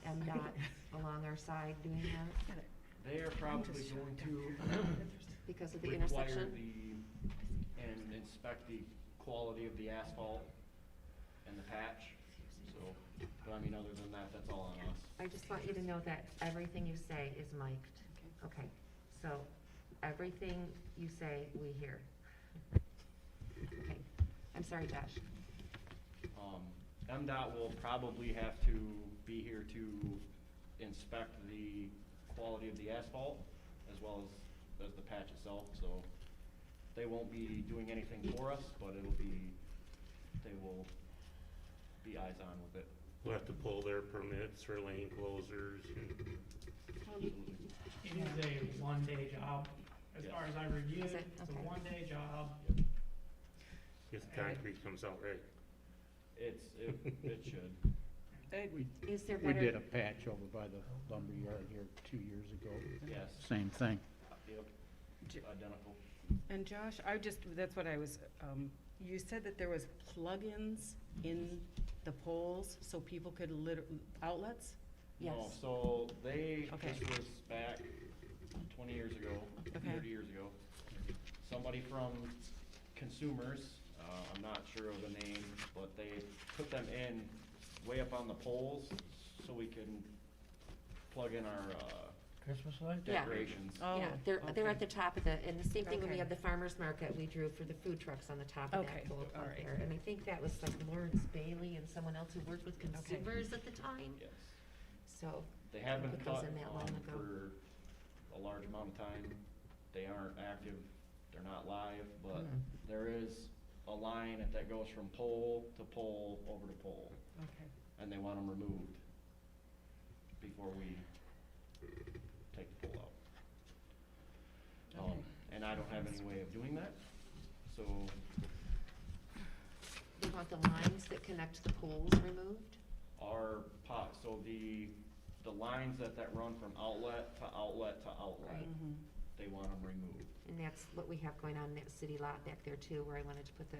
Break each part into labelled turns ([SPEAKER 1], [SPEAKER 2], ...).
[SPEAKER 1] dot along our side doing that
[SPEAKER 2] They are probably going to
[SPEAKER 1] because of the
[SPEAKER 2] require
[SPEAKER 1] intersection?
[SPEAKER 2] the, and inspect the quality of the asphalt and the patch, so, but I mean, other than that, that's all on us.
[SPEAKER 1] I just want you to know that everything you say is mic'd. Okay, so everything you say, we hear. Okay, I'm sorry, Josh.
[SPEAKER 2] Um, MDOT will probably have to be here to inspect the quality of the asphalt as well as, as the patch itself, so they won't be doing anything for us, but it'll be, they will be eyes on with it.
[SPEAKER 3] We'll have to pull their permits or lane closers. and-
[SPEAKER 2] Absolutely.
[SPEAKER 4] It is a one-day job, as far as I reviewed,
[SPEAKER 1] Is it?
[SPEAKER 4] it's a
[SPEAKER 1] Okay.
[SPEAKER 4] one-day job.
[SPEAKER 3] If the concrete comes out right.
[SPEAKER 2] It's, it, it should.
[SPEAKER 5] We,
[SPEAKER 1] Is there
[SPEAKER 5] we did
[SPEAKER 1] better,
[SPEAKER 5] a patch over by the lumber yard here two years ago,
[SPEAKER 2] Yes,
[SPEAKER 5] same thing.
[SPEAKER 2] yep, identical.
[SPEAKER 6] And Josh, I just, that's what I was, um, you said that there was plugins in the poles so people could lit, outlets?
[SPEAKER 2] No,
[SPEAKER 1] Yes.
[SPEAKER 2] so they,
[SPEAKER 6] Okay.
[SPEAKER 2] this was back twenty years ago,
[SPEAKER 6] Okay.
[SPEAKER 2] thirty years ago. Somebody from Consumers, uh, I'm not sure of the name, but they put them in way up on the poles so we can plug in our, uh,
[SPEAKER 5] Christmas light?
[SPEAKER 1] Yeah.
[SPEAKER 2] decorations.
[SPEAKER 6] Oh,
[SPEAKER 1] yeah, they're, they're at
[SPEAKER 6] okay.
[SPEAKER 1] the top of the, and the same thing when we
[SPEAKER 6] Okay.
[SPEAKER 1] had the farmer's market, we drew for the food trucks on the top of
[SPEAKER 6] Okay,
[SPEAKER 1] that pole
[SPEAKER 6] all
[SPEAKER 1] up
[SPEAKER 6] right.
[SPEAKER 1] there. And I think that was like Lawrence Bailey and someone else who worked with consumers at the time,
[SPEAKER 2] Yes,
[SPEAKER 1] so.
[SPEAKER 2] they have been
[SPEAKER 1] It
[SPEAKER 2] cut
[SPEAKER 1] wasn't that long
[SPEAKER 2] on
[SPEAKER 1] ago.
[SPEAKER 2] for a large amount of time. They aren't active, they're not live, but
[SPEAKER 1] Mhm.
[SPEAKER 2] there is a line that goes from pole to pole over to pole.
[SPEAKER 6] Okay.
[SPEAKER 2] and they want them removed before we take the pole out. Um,
[SPEAKER 6] Okay.
[SPEAKER 2] and I don't have any way of doing that, so,
[SPEAKER 1] They want the lines that connect the poles removed?
[SPEAKER 2] our pot, so the, the lines that, that run from outlet to outlet to outlet,
[SPEAKER 1] Right.
[SPEAKER 6] Mhm.
[SPEAKER 4] Mm-hmm.
[SPEAKER 2] they want them removed.
[SPEAKER 1] And that's what we have going on in that city lot back there too, where I wanted to put the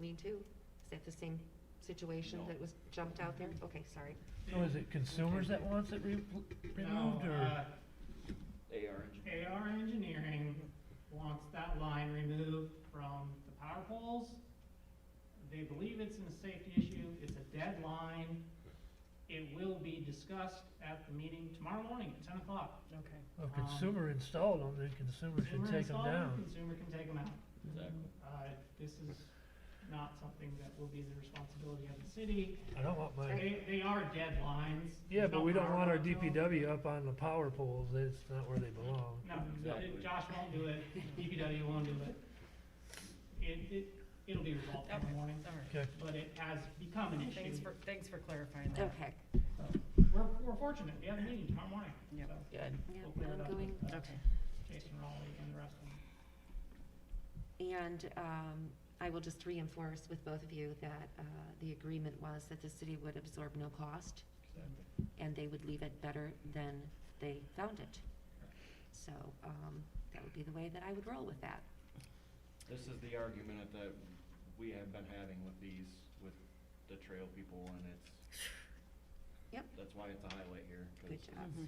[SPEAKER 1] lean-to. Is that the same situation
[SPEAKER 2] No.
[SPEAKER 1] that was jumped out
[SPEAKER 4] Mm-hmm.
[SPEAKER 1] there? Okay, sorry.
[SPEAKER 7] So Oh, is it consumers that wants it re- removed,
[SPEAKER 4] No,
[SPEAKER 7] or?
[SPEAKER 4] uh,
[SPEAKER 2] AR,
[SPEAKER 4] AR Engineering wants that line removed from the power poles. They believe it's a safety issue, it's a dead line. It will be discussed at the meeting tomorrow morning at ten o'clock.
[SPEAKER 6] Okay.
[SPEAKER 1] Um,
[SPEAKER 7] Well, consumer installed them, then consumer should
[SPEAKER 4] Consumer
[SPEAKER 7] take them
[SPEAKER 4] installed,
[SPEAKER 7] down.
[SPEAKER 4] Consumer can take them out.
[SPEAKER 2] exactly.
[SPEAKER 4] Uh, This is not something that will be the responsibility of the city.
[SPEAKER 7] I don't want my,
[SPEAKER 4] They, they are dead lines.
[SPEAKER 7] yeah, but we don't want our
[SPEAKER 4] There's no power lines.
[SPEAKER 7] DPW up on the power poles, it's not where they belong.
[SPEAKER 4] No,
[SPEAKER 2] Exactly.
[SPEAKER 4] Josh won't do it, DPW won't do it. It, it, it'll be resolved in
[SPEAKER 6] Okay.
[SPEAKER 4] the morning,
[SPEAKER 6] All right.
[SPEAKER 7] Okay,
[SPEAKER 4] but it has become an issue.
[SPEAKER 6] Thanks for, thanks for clarifying that.
[SPEAKER 1] Okay.
[SPEAKER 4] So, We're, we're fortunate, we have a meeting tomorrow morning.
[SPEAKER 6] Yep.
[SPEAKER 4] so
[SPEAKER 6] Good.
[SPEAKER 1] Yeah,
[SPEAKER 4] we'll clear it up
[SPEAKER 1] ongoing.
[SPEAKER 4] with, uh,
[SPEAKER 6] Okay.
[SPEAKER 4] Jason Raleigh and the rest of them.
[SPEAKER 1] And um, I will just reinforce with both of you that uh, the agreement was that the city would absorb no cost and they would leave it better than they found it. So um, that would be the way that I would roll with that.
[SPEAKER 2] This is the argument that we have been having with these, with the trail people, and it's.
[SPEAKER 1] Yep.
[SPEAKER 2] That's why it's a highlight here, 'cause
[SPEAKER 1] Good job.
[SPEAKER 6] Mhm.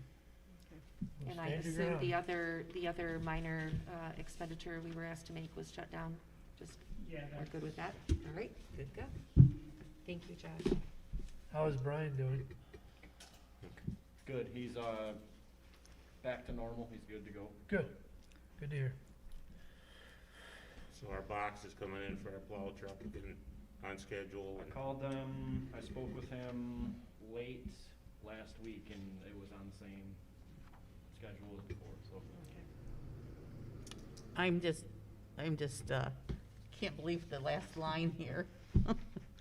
[SPEAKER 7] we'll
[SPEAKER 1] And I
[SPEAKER 7] stand your
[SPEAKER 1] assume the
[SPEAKER 7] ground.
[SPEAKER 1] other, the other minor uh, expenditure we were asked to make was shut down. Just,
[SPEAKER 4] Yeah,
[SPEAKER 1] we're
[SPEAKER 4] that's,
[SPEAKER 1] good with that? All right, good, go. Thank you, Josh.
[SPEAKER 7] How is Brian doing?
[SPEAKER 2] Good, he's, uh, back to normal, he's good to go.
[SPEAKER 7] Good, good to hear.
[SPEAKER 3] So our box is coming in for our plow truck and on schedule
[SPEAKER 2] I
[SPEAKER 3] and
[SPEAKER 2] called them, I spoke with him late last week, and it was on the same schedule as before, so.
[SPEAKER 8] I'm just, I'm just, uh, can't believe the last line here. Our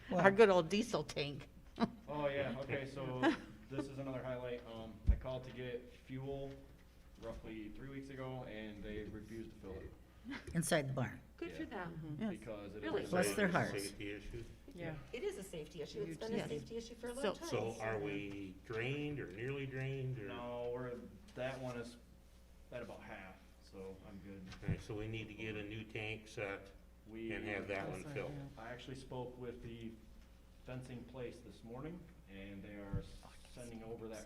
[SPEAKER 5] What?
[SPEAKER 8] good old diesel tank.
[SPEAKER 2] Oh, yeah, okay, so this is another highlight, um, I called to get fuel roughly three weeks ago, and they refused to fill it.
[SPEAKER 8] Inside the barn.
[SPEAKER 1] Good for
[SPEAKER 2] Yeah.
[SPEAKER 1] them.
[SPEAKER 8] Yes.
[SPEAKER 2] Because it
[SPEAKER 1] Really?
[SPEAKER 2] is.
[SPEAKER 8] Bless their
[SPEAKER 2] related to
[SPEAKER 8] hearts.
[SPEAKER 3] safety issues.
[SPEAKER 6] Yeah.
[SPEAKER 1] It is a safety issue. It's been a
[SPEAKER 8] Yes.
[SPEAKER 1] safety issue for a long
[SPEAKER 8] So-
[SPEAKER 1] time.
[SPEAKER 3] So are we drained or nearly drained or?
[SPEAKER 2] No, we're, that one is at about half, so I'm good.
[SPEAKER 3] Alright, so we need to get a new tank set
[SPEAKER 2] We.
[SPEAKER 3] and have that one
[SPEAKER 6] Also,
[SPEAKER 3] filled.
[SPEAKER 6] yeah.
[SPEAKER 2] I actually spoke with the fencing place this morning, and they are sending over that